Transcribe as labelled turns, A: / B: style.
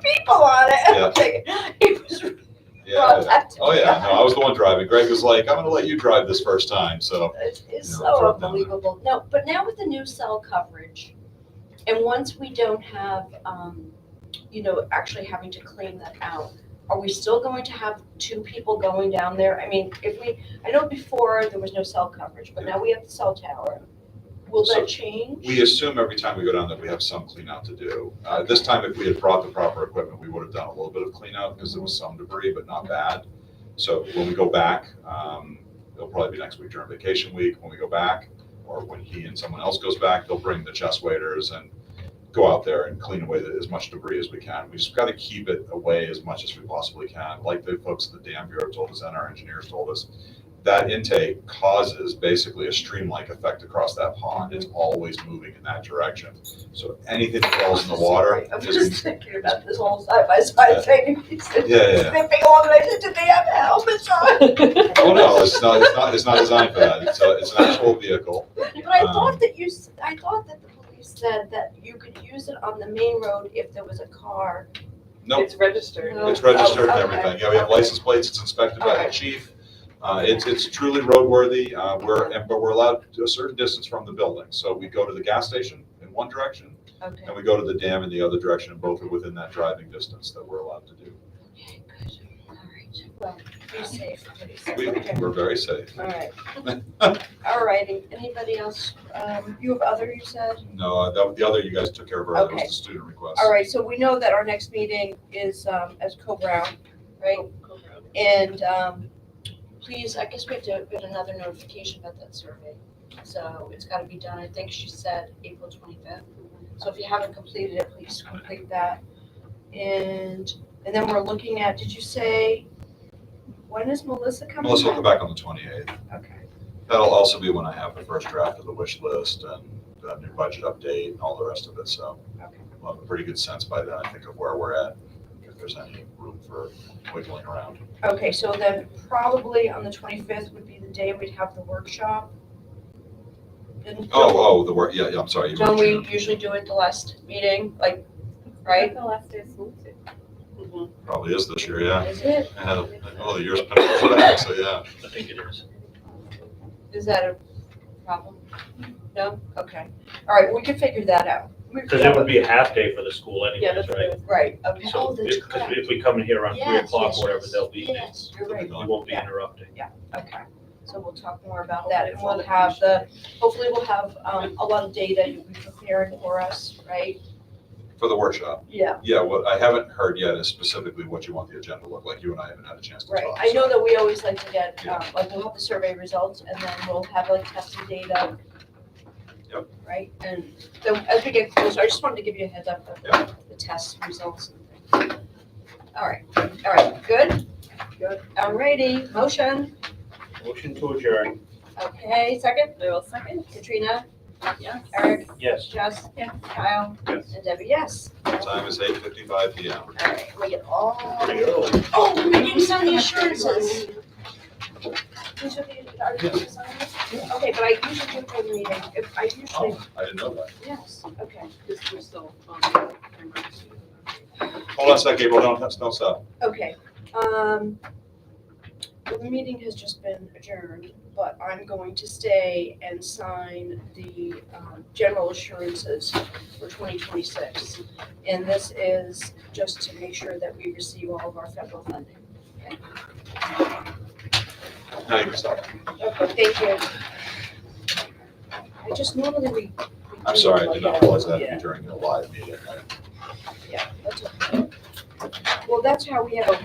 A: people on it. And
B: Yeah.
A: I'm thinking, It was really
B: Yeah.
A: brought up to
B: Oh,
A: me.
B: yeah, no, I was the one driving. Greg was like, I'm gonna let you drive this first time, so,
A: It- It's
B: Yeah,
A: so
B: drop down there.
A: unbelievable. No, but now with the new cell coverage, and once we don't have, um, you know, actually having to claim that out, are we still going to have two people going down there? I mean, if we, I know before there was no cell coverage, but now we have the cell tower. Will
B: So
A: that change?
B: we assume every time we go down there, we have some cleanout to do. Uh, this time, if we had brought the proper equipment, we would have done a little bit of cleanout, because there was some debris, but not bad. So when we go back, um, it'll probably be next week during vacation week, when we go back, or when he and someone else goes back, they'll bring the chest waders and go out there and clean away the- as much debris as we can. We just gotta keep it away as much as we possibly can, like the folks at the Dam Bureau told us and our engineers told us. That intake causes basically a stream-like effect across that pond. It's always moving in that direction. So anything that falls in the water
A: I'm
B: is,
A: just thinking about this whole side by side thing.
B: yeah, yeah.
A: Snipping on it, I said, do they have helmets on?
B: Oh, no, it's not, it's not, it's not designed for that. It's a, it's an actual vehicle.
A: But I
B: Um,
A: thought that you, s- I thought that the police said that you could use it on the main road if there was a car.
B: Nope,
C: It's registered.
A: No.
B: it's registered and
A: Oh, okay.
B: everything. Yeah, we have license plates, it's inspected by the
A: Okay.
B: chief. Uh, it's, it's truly roadworthy. Uh, we're, and- but we're allowed to a certain distance from the building. So we go to the gas station in one direction
A: Okay.
B: and we go to the dam in the other direction and both are within that driving distance that we're allowed to do.
A: Okay, good, all right, well, be safe, please.
B: We,
A: Okay,
B: we're very safe.
A: All right. All righty, anybody else, um, you have other, you said?
B: No, uh, that, the other you guys took care of earlier was
A: Okay.
B: the student request.
A: All right, so we know that our next meeting is, um, as Co-Brown, right? And, um, please, I guess we have to get another notification about that survey. So it's gotta be done, I think she said April twenty-fifth. So if you haven't completed it, please complete that. And, and then we're looking at, did you say, when is Melissa coming
B: Melissa will come
A: back?
B: back on the twenty-eighth.
A: Okay,
B: That'll also be when I have the first draft of the wish list and the new budget update and all the rest of it, so
A: okay.
B: we'll have a pretty good sense by then, I think, of where we're at, if there's any room for wiggling around.
A: Okay, so then probably on the twenty-fifth would be the day we'd have the workshop. And
B: Oh, oh, the work, yeah, yeah, I'm sorry. you
A: Don't we
B: mentioned
A: usually do it the last meeting, like, right?
C: The last day is moved.
B: it. Probably is this year, yeah.
A: Is it,
B: Yeah, Oh, the year's been for that, so yeah.
D: I think it is.
A: is that a problem? No? Okay. All right, we can figure that out. We-
D: Because it would be a half day for the school
C: Yeah,
D: anyways,
C: that's
D: right?
C: right.
A: Right, okay.
D: So,
A: that's
D: because if we come in here around three
A: Yes,
D: o'clock
A: yes,
D: or whatever,
A: yes.
D: they'll be, we
A: Yes, you're right,
D: won't be interrupting.
A: okay. So we'll talk more about that and we'll have the, hopefully we'll have, um, a lot of data you'll be preparing for us, right?
B: For the workshop,
A: Yeah,
B: yeah, what I haven't heard yet is specifically what you want the agenda to look like. You and I haven't had a chance to
A: right.
B: talk.
A: I
B: so-
A: know that we always like to get, um, like we'll have the survey results and then we'll have like tested data.
B: Yep.
A: Right, and so as we get closer, I just wanted to give you a heads up
B: Yeah.
A: of the test results and things. All right, all right, good? Good. Alrighty, motion,
D: Motion to adjourn.
A: okay, second?
C: I will second.
A: Katrina?
C: Yes.
A: Eric?
D: Yes.
A: Jess? Kyle?
D: Yes.
A: And Debbie, yes.
B: Time is eight fifty-five P M.
A: All right, we get all.
D: Pretty early.
A: Oh, we didn't sign the assurances. We should be- are we gonna sign this? Okay, but I usually do for the meeting, if I usually,
B: Oh, I didn't know that.
A: yes, okay,
C: Because we're still on the emergency.
B: Hold on a second, April, don't, don't stop.
A: okay. Um, the meeting has just been adjourned, but I'm going to stay and sign the, um, general assurances for twenty twenty-six. And this is just to make sure that we receive all of our federal funding.
B: Now you can stop.
A: Okay, thank you. I just normally we. we
B: I'm
A: do
B: sorry, I
A: like
B: did not
A: that.
B: realize that
A: Yeah,
B: during a live meeting. I-
A: yeah, that's okay. Well, that's how we have a